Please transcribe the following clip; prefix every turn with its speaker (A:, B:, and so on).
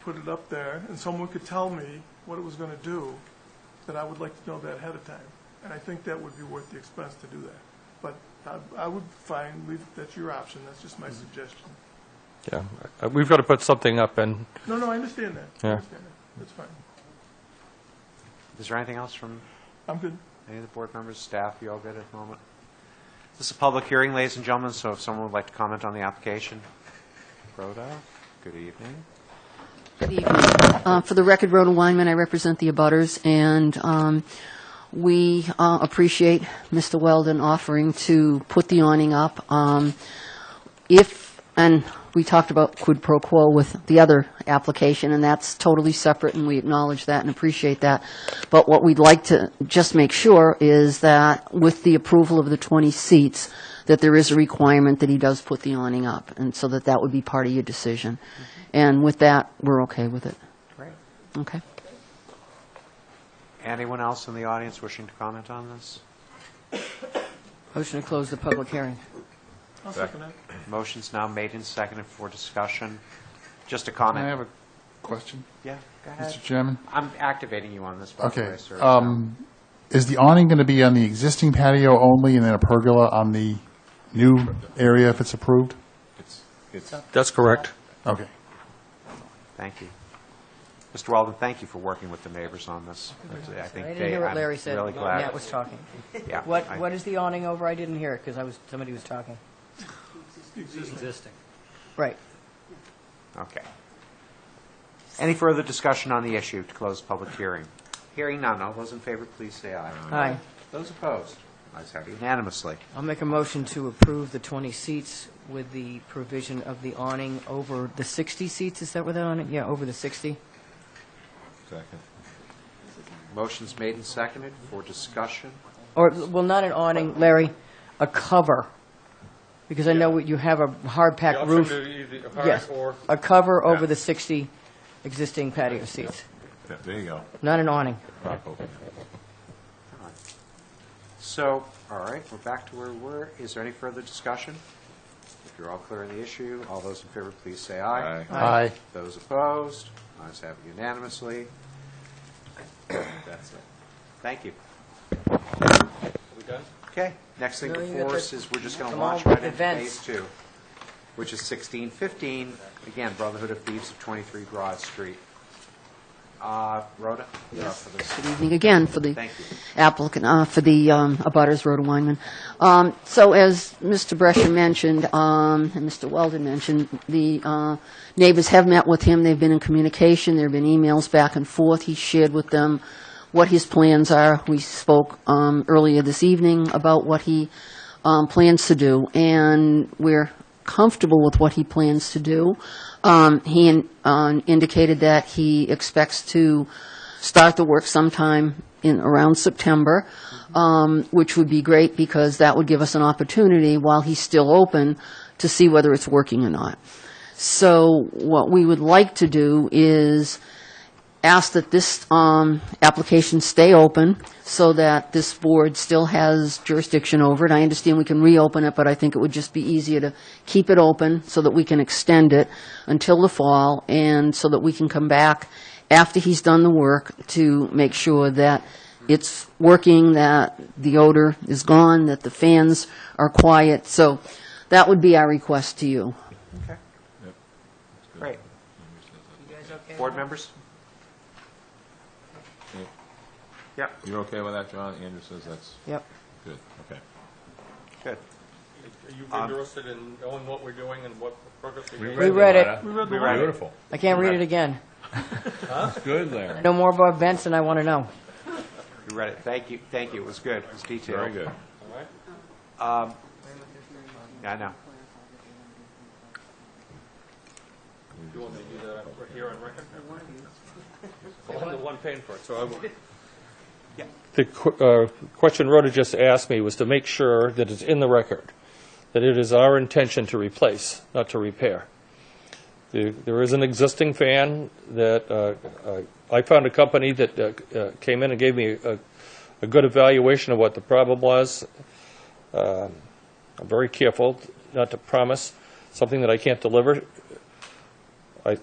A: put it up there and someone could tell me what it was going to do, then I would like to know that ahead of time. And I think that would be worth the expense to do that. But I, I would find, leave, that's your option, that's just my suggestion.
B: Yeah, Uh, we've got to put something up and,
A: No, no, I understand that. I
B: Yeah.
A: understand that. That's fine.
C: Is there anything else from
A: I'm good.
C: any of the board members, staff? You all good at the moment? This is a public hearing, ladies and gentlemen, so if someone would like to comment on the application. Rhoda, good evening.
D: Good evening. Uh, For the record, Rhoda Weinman, I represent the abutters, and um, we uh, appreciate Mr. Weldon offering to put the awning up. Um, If, and we talked about quid pro quo with the other application, and that's totally separate, and we acknowledge that and appreciate that. But what we'd like to just make sure is that with the approval of the 20 seats, that there is a requirement that he does put the awning up, and so that that would be part of your decision. And with that, we're okay with it.
C: Great.
D: Okay?
C: Anyone else in the audience wishing to comment on this?
D: Motion to close the public hearing.
A: I'll second that.
C: Motion's now made and seconded for discussion. Just a
E: I
C: comment.
E: have a question,
C: Yeah, go ahead.
E: Mr. Chairman?
C: I'm activating you on this, by the
E: Okay.
C: way, sir.
E: um, Is the awning going to be on the existing patio only and then a pergola on the new area if it's approved?
B: that's correct.
E: Okay.
C: Thank you. Mr. Weldon, thank you for working with the neighbors on this. I
F: I
C: think
F: didn't
C: they-
F: hear what
C: I'm
F: Larry said.
C: Really glad.
F: Matt was talking.
C: Yeah,
F: What,
C: I-
F: what is the awning over? I didn't hear it because I was, somebody was talking. Right.
C: Okay. Any further discussion on the issue to close public hearing? Hearing none, all those in favor, please say aye.
F: Aye.
C: Those opposed? Ayes have unanimously.
F: I'll make a motion to approve the 20 seats with the provision of the awning over the 60 seats. Is that where that awning? Yeah, over the 60.
C: Motion's made and seconded for discussion.
F: Or, well, not an awning, Larry, a cover. Because I know what you have a hard pack roof. Yes, a cover over the 60 existing patio seats,
G: There you go.
F: not an awning.
C: So, all right, we're back to where we were. Is there any further discussion? If you're all clear on the issue, all those in favor, please say aye.
E: Aye.
C: Those opposed? Ayes have unanimously. That's it. Thank you. Okay, next thing
F: No, you
C: before
F: got
C: us
F: the-
C: is we're just going to
F: come on
C: launch
F: with
C: right into
F: events.
C: phase two, which is 1615, again, Brotherhood of Thieves of 23 Broad Street. Uh, Rhoda? you're up for this.
D: Good evening again for the
C: Thank you.
D: applicant, uh, for the um, abutters, Rhoda Weinman. Um, So as Mr. Brescher mentioned, um, and Mr. Weldon mentioned, the uh, neighbors have met with him, they've been in communication, there have been emails back and forth, he shared with them what his plans are. We spoke um, earlier this evening about what he um, plans to do, and we're comfortable with what he plans to do. Um, He in- um, indicated that he expects to start the work sometime in, around September, um, which would be great because that would give us an opportunity, while he's still open, to see whether it's working or not. So what we would like to do is ask that this um, application stay open so that this board still has jurisdiction over it. I understand we can reopen it, but I think it would just be easier to keep it open so that we can extend it until the fall and so that we can come back after he's done the work to make sure that it's working, that the odor is gone, that the fans are quiet. So that would be our request to you.
C: Okay. Great. Board members? Yep,
G: You're okay with that, John? Andrew says that's
F: Yep.
G: good, okay.
C: good.
H: Are you interested in knowing what we're doing and what progress we're making?
F: We read it.
A: We read the
G: We
A: letter.
G: read it. Beautiful.
F: I can't read it again.
G: Good, Larry.
F: I know more about events than I want to know.
C: You read it. Thank you, thank you. It was good. It was detailed.
G: Very good.
C: I know.
H: You want me to do that right here on record? Well, I'm the one paying for it, so I will.
B: The qu- uh, question Rhoda just asked me was to make sure that it's in the record, that it is our intention to replace, not to repair. The- There is an existing fan that, uh, uh, I found a company that uh, uh, came in and gave me a a good evaluation of what the problem was. Um, I'm very careful not to promise something that I can't deliver. I